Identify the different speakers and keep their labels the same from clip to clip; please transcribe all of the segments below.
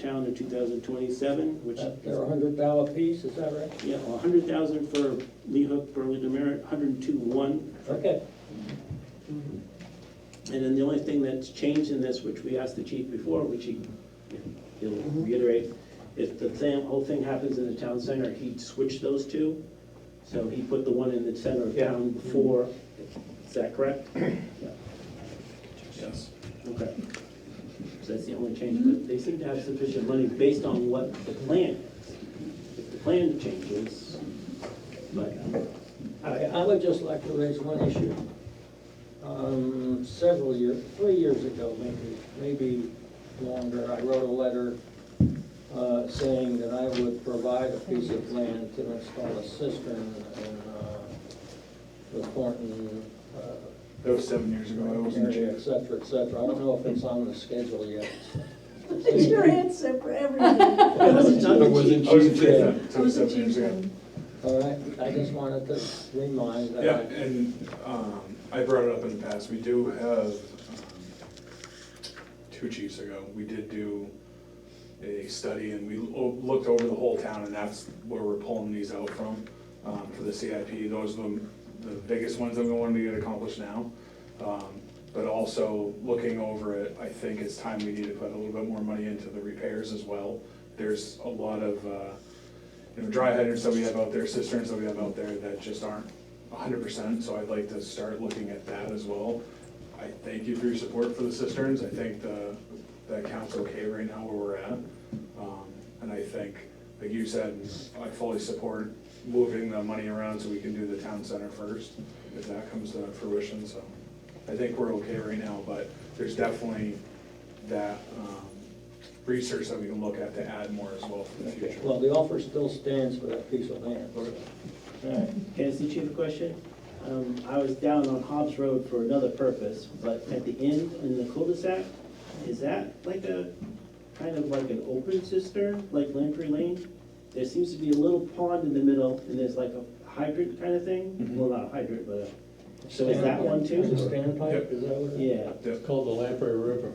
Speaker 1: town in 2027, which,
Speaker 2: That- They're a hundred dollar piece, is that right?
Speaker 1: yeah, 100,000 for Lee Hook, Burley Demerit, 102,1.
Speaker 2: Okay.
Speaker 1: And then the only thing that's changed in this, which we asked the chief before, which he, he'll reiterate, if the thing, whole thing happens in the town center, he'd switch those two. So he put the one in the center of town before, is that correct?
Speaker 3: Yes.
Speaker 1: Okay. So that's the only change, but they seem to have sufficient money based on what the plan is. If the plan changes, but,
Speaker 2: I, I would just like to raise one issue. Um, several years, three years ago, maybe, maybe longer, I wrote a letter, uh, saying that I would provide a piece of land to install a cistern in, uh, the Thornton, uh,
Speaker 3: That was seven years ago, I wasn't
Speaker 2: area,
Speaker 3: here.
Speaker 2: et cetera, et cetera. I don't know if it's on the schedule yet.
Speaker 4: It's your answer for everything.
Speaker 1: I wasn't
Speaker 3: I
Speaker 1: on the chief.
Speaker 3: wasn't here
Speaker 2: Yeah.
Speaker 3: then, so it was seven years ago.
Speaker 2: All right, I just wanted to remind that.
Speaker 3: Yeah, and, um, I brought it up in the past, we do have, um, two chiefs ago, we did do a study and we lo- looked over the whole town and that's where we're pulling these out from, um, for the CIP. Those are the, the biggest ones that we wanted to get accomplished now. Um, but also looking over it, I think it's time we need to put a little bit more money into the repairs as well. There's a lot of, uh, you know, dry hydrants that we have out there, cisterns that we have out there that just aren't hundred percent, so I'd like to start looking at that as well. I thank you for your support for the cisterns, I think the, the account's okay right now where we're at. Um, And I think, like you said, I fully support moving the money around so we can do the town center first, if that comes to fruition, so. I think we're okay right now, but there's definitely that, um, research that we can look at to add more as well for the future.
Speaker 2: Well, the offer still stands for that piece of land.
Speaker 5: Can I ask the chief a question? Um, I was down on Hobbs Road for another purpose, but at the end in the cul-de-sac, is that like a, kind of like an open cistern, like Lamprey Lane? There seems to be a little pond in the middle, and there's like a hydrant kind of thing?
Speaker 3: Mm-hmm.
Speaker 5: Well, not a hydrant, but a, so is that one
Speaker 2: The
Speaker 5: too?
Speaker 2: standpipe, is that what it is?
Speaker 5: Yeah.
Speaker 3: Yep.
Speaker 6: Called the Lamprey River.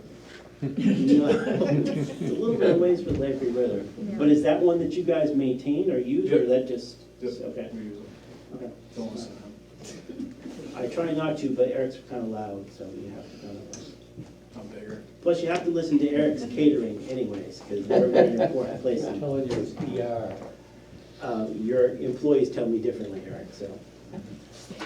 Speaker 5: It's a little bit of ways from Lamprey River, but is that one that you guys maintain or use, or
Speaker 3: Yep.
Speaker 5: that just?
Speaker 3: Yep.
Speaker 5: Okay,
Speaker 3: We use them.
Speaker 5: okay.
Speaker 3: Don't listen to him.
Speaker 5: I try not to, but Eric's kind of loud, so you have to kind of.
Speaker 3: I'm bigger.
Speaker 5: Plus, you have to listen to Eric's catering anyways, because they're a very important place.
Speaker 6: I'm telling you, it's
Speaker 2: E
Speaker 6: ER.
Speaker 5: Uh, Your employees tell me differently, Eric, so.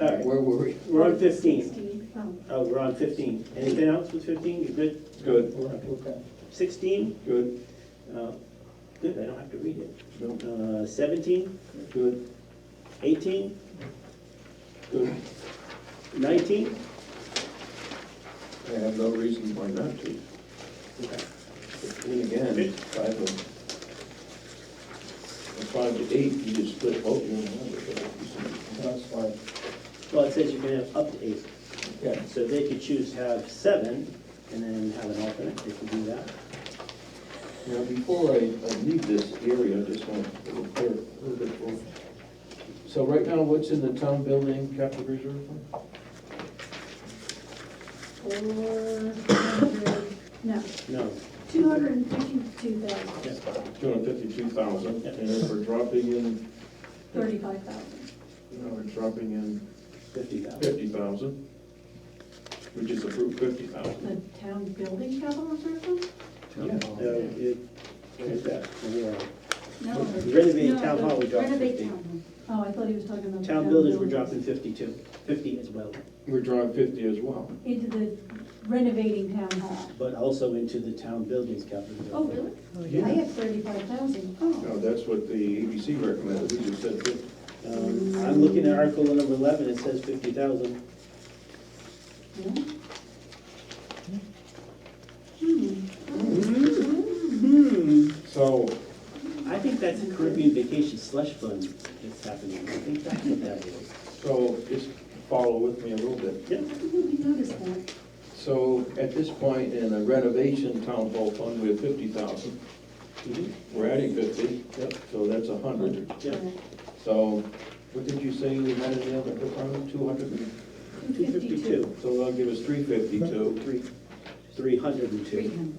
Speaker 5: All right,
Speaker 2: Where were we?
Speaker 5: we're on fifteen.
Speaker 4: Um,
Speaker 5: Oh, we're on fifteen. Anything else with fifteen? You good?
Speaker 1: Good,
Speaker 2: Okay.
Speaker 5: Sixteen?
Speaker 1: good,
Speaker 5: Uh, Good, I don't have to read it. Seventeen?
Speaker 1: good,
Speaker 5: Eighteen?
Speaker 1: good.
Speaker 5: Nineteen?
Speaker 1: I have no reason why not to.
Speaker 5: Okay.
Speaker 1: Then again, five of, from five to eight, you just split both of them.
Speaker 2: That's fine.
Speaker 5: Well, it says you can have up to eight.
Speaker 2: Yeah.
Speaker 5: So they could choose to have seven and then have an alternate. They could do that.
Speaker 1: Now, before I, I leave this area, I just want to prepare a little bit more. So right now, what's in the town building capital reserve fund?
Speaker 4: Four hundred, no,
Speaker 5: No,
Speaker 4: two hundred and fifty-two thousand,
Speaker 1: Two hundred fifty-two thousand, and if we're dropping in,
Speaker 4: thirty-five thousand.
Speaker 1: now we're dropping in
Speaker 5: fifty thousand.
Speaker 1: fifty thousand, which is approved fifty thousand.
Speaker 4: The town building capital reserve fund?
Speaker 5: Where's that? Yeah.
Speaker 4: No.
Speaker 5: Renovate
Speaker 4: No,
Speaker 5: town
Speaker 4: the
Speaker 5: hall, we dropped
Speaker 4: renovate
Speaker 5: 50.
Speaker 4: town hall. Oh, I thought he was talking about. the
Speaker 5: Town buildings, we're
Speaker 4: buildings.
Speaker 5: dropping fifty-two, fifty as well,
Speaker 1: We're drawing fifty as well.
Speaker 4: Into the renovating town hall.
Speaker 5: but also into the town buildings capital.
Speaker 4: Oh, really? I have thirty-five thousand.
Speaker 7: No,
Speaker 4: Oh,
Speaker 7: that's what the ABC recommended, we just said fifty.
Speaker 5: Um, I'm looking at article number eleven, it says fifty thousand.
Speaker 4: yeah. Hmm.
Speaker 5: Hmm.
Speaker 7: So,
Speaker 5: I think that's a Caribbean vacation slush fund that's happening, I think that's what that is.
Speaker 7: so just follow with me a little bit.
Speaker 4: I didn't notice that.
Speaker 7: So at this point in the renovation town hall fund, we have fifty thousand.
Speaker 5: Mhm.
Speaker 7: We're adding fifty,
Speaker 5: Yep.
Speaker 7: so that's a hundred.
Speaker 5: Yeah.
Speaker 7: So what did you say we had in the other department, two hundred?
Speaker 5: Two fifty-two.
Speaker 7: So that'll give us three fifty-two.
Speaker 5: Three.
Speaker 8: three hundred and two.
Speaker 5: three hundred.